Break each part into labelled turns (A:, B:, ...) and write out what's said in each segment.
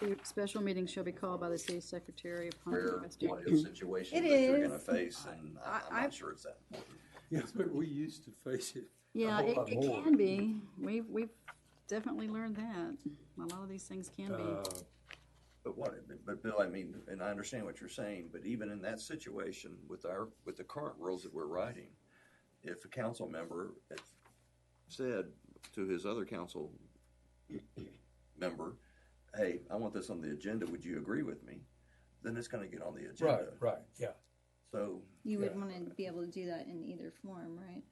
A: The special meeting shall be called by the city secretary upon
B: rare
A: request.
B: what-if situation
C: It
B: that they're
C: is.
B: gonna face, and I-
A: I-
B: I'm
A: I-
B: not sure it's that important.
D: Yes, but we used to face it.
A: Yeah,
D: whole
A: it,
D: lot
A: it
D: more.
A: can be. We've, we've definitely learned that. A lot of these things can be.
D: Uh,
B: But what, but Bill, I mean, and I understand what you're saying, but even in that situation, with our, with the current rules that we're writing, if a council member had said to his other council member, hey, I want this on the agenda, would you agree with me? Then it's gonna get on the
D: Right,
B: agenda.
D: right, yeah.
B: So
C: You would
D: Yeah.
C: want to be able to do that in either form, right?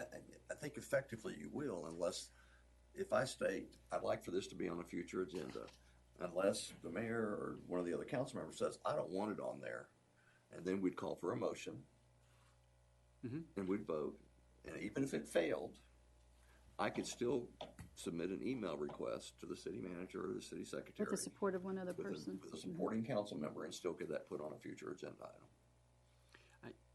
B: I- I think effectively you will unless, if I state, I'd like for this to be on a future agenda, unless the mayor or one of the other council members says, I don't want it on there. And then we'd call for a motion.
D: Mhm.
B: And we'd vote. And even if it failed, I could still submit an email request to the city manager or the city secretary.
A: With the support of one other
B: with a-
A: person.
B: With a supporting council member and still get that put on a future agenda item.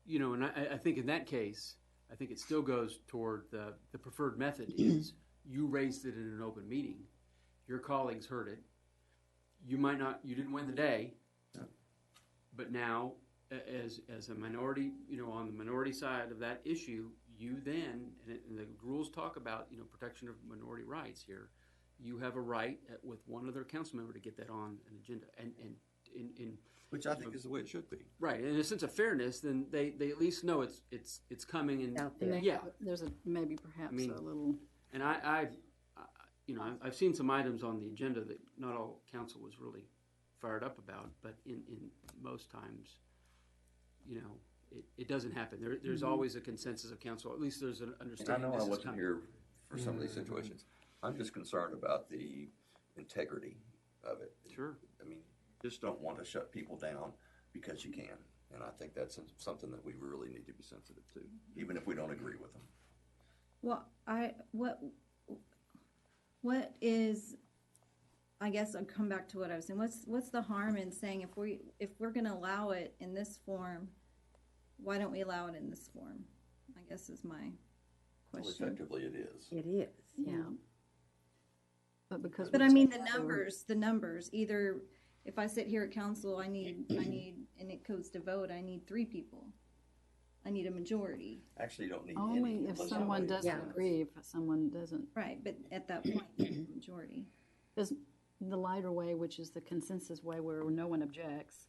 E: You know, and I, I- I think in that case, I think it still goes toward the, the preferred method is you raised it in an open meeting, your colleagues heard it. You might not, you didn't win the day, but now, a- as, as a minority, you know, on the minority side of that issue, you then, and, it, and the rules talk about, you know, protection of minority rights here. You have a right uh, with one other council member to get that on an agenda and, and, in, in
B: Which I think is the way it should be.
E: Right, in a sense of fairness, then they, they at least know it's it's it's coming and
F: out
A: And
F: there.
A: they
E: Yeah.
A: have- There's a, maybe perhaps
E: mean-
A: a little,
E: and I I've, I you know I've, I've seen some items on the agenda that not all council was really fired up about, but in in most times, you know, it, it doesn't happen. There there's always a consensus of council. At least there's an
B: And I
E: understanding.
B: know I
E: this is Mm-hmm.
B: wasn't
E: coming.
B: here for some of these situations. I'm just concerned about the integrity of it.
E: Sure.
B: I mean, just don't want to shut people down because you can. And I think that's something that we really need to be sensitive to, even if we don't agree with them.
C: Well, I, what, what is, I guess I'll come back to what I was saying. What's, what's the harm in saying if we, if we're gonna allow it in this form, why don't we allow it in this form? I guess is my
B: Well,
C: question.
B: effectively, it is.
F: It is.
A: yeah. But because.
C: But I
A: we're
C: mean, the
A: so-
C: numbers, the numbers, either if I sit here at council, I need, I need, and it goes to vote, I need three people. I need a majority.
B: Actually, you don't need any.
A: Only if
B: unless
A: someone
B: somebody-
A: doesn't
F: Yeah.
A: agree, if someone doesn't
C: Right, but at that point, you need a majority.
A: Because the lighter way, which is the consensus way where no one objects,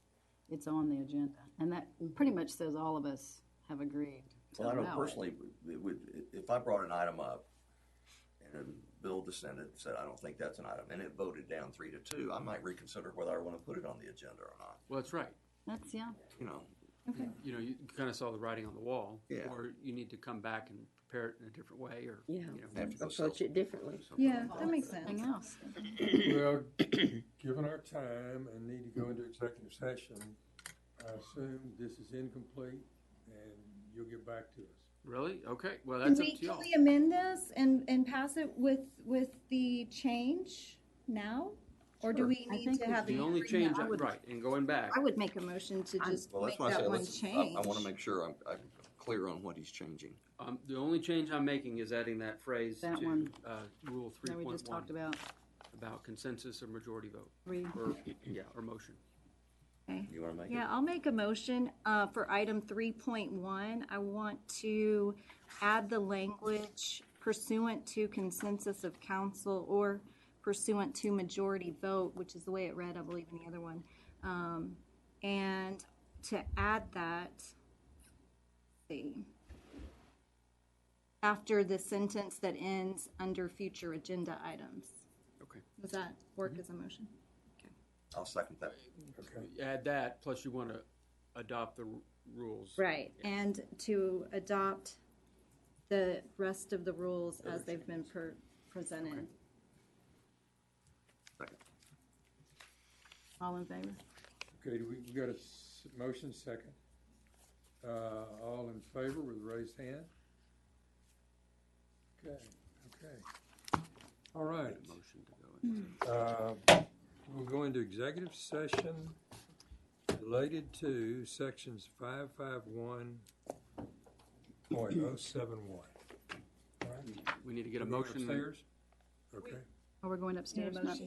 A: it's on the agenda. And that pretty much says all of us have agreed to
B: Well, I know
A: allow it.
B: personally, it would, if I brought an item up and then Bill dissented, said, I don't think that's an item, and it voted down three to two, I might reconsider whether I want to put it on the agenda or not,
E: Well, that's right.
A: That's, yeah,
B: you know.
C: Okay.
E: You know, you kind of saw the writing on the wall,
B: Yeah.
E: or you need to come back and prepare it in a different way, or
F: Yeah.
E: you know,
B: I have to go sell
F: Approach it differently.
B: something
C: Yeah,
B: like
C: that makes
A: something
C: sense.
A: else.
D: Well, given our time and need to go into executive session, I assume this is incomplete and you'll get back to us.
E: really okay. Well,
C: Can
E: that's
C: we,
E: up to y'all.
C: can we amend this and, and pass it with, with the change now? Or do
B: Sure.
C: we
A: I
C: need
A: think
C: to
A: we
C: have?
A: should-
E: The
C: an
E: only change,
C: agreement?
E: I- right, and going back.
C: I would make a motion to just
B: Well,
C: make
B: that's why I said,
C: that one
B: let's, I,
C: change.
B: I wanna make sure I'm, I'm clear on what he's changing.
E: Um, the only change I'm making is adding that phrase
A: That
E: to,
A: one.
E: uh, rule three
A: Now, we
E: point
A: just talked
E: one
A: about
E: about consensus or majority vote,
A: three.
E: or, yeah, or motion.
B: You wanna make it?
C: Yeah, I'll make a motion, uh, for item three point one. I want to add the language pursuant to consensus of council or pursuant to majority vote, which is the way it read, I believe, in the other one. Um, and to add that, see, after the sentence that ends under future agenda items.
E: Okay.
C: Does that work as a motion?
B: I'll second that.
D: Okay.
E: Add that, plus you wanna adopt the r- rules.
C: Right, and to adopt the rest of the rules as they've been per- presented.
A: All in favor?
D: Okay, do we, we got a s- motion second. Uh, all in favor with raised hand? Okay, okay. All right,
E: Motion to go
B: Mm-hmm.
E: in.
D: uh, we'll go into executive session related to sections five five one point oh seven one.
E: We need to get a motion.
D: Upstairs? Okay.
A: Are we Oh, going upstairs?
C: Yeah,
A: Not-
C: motion.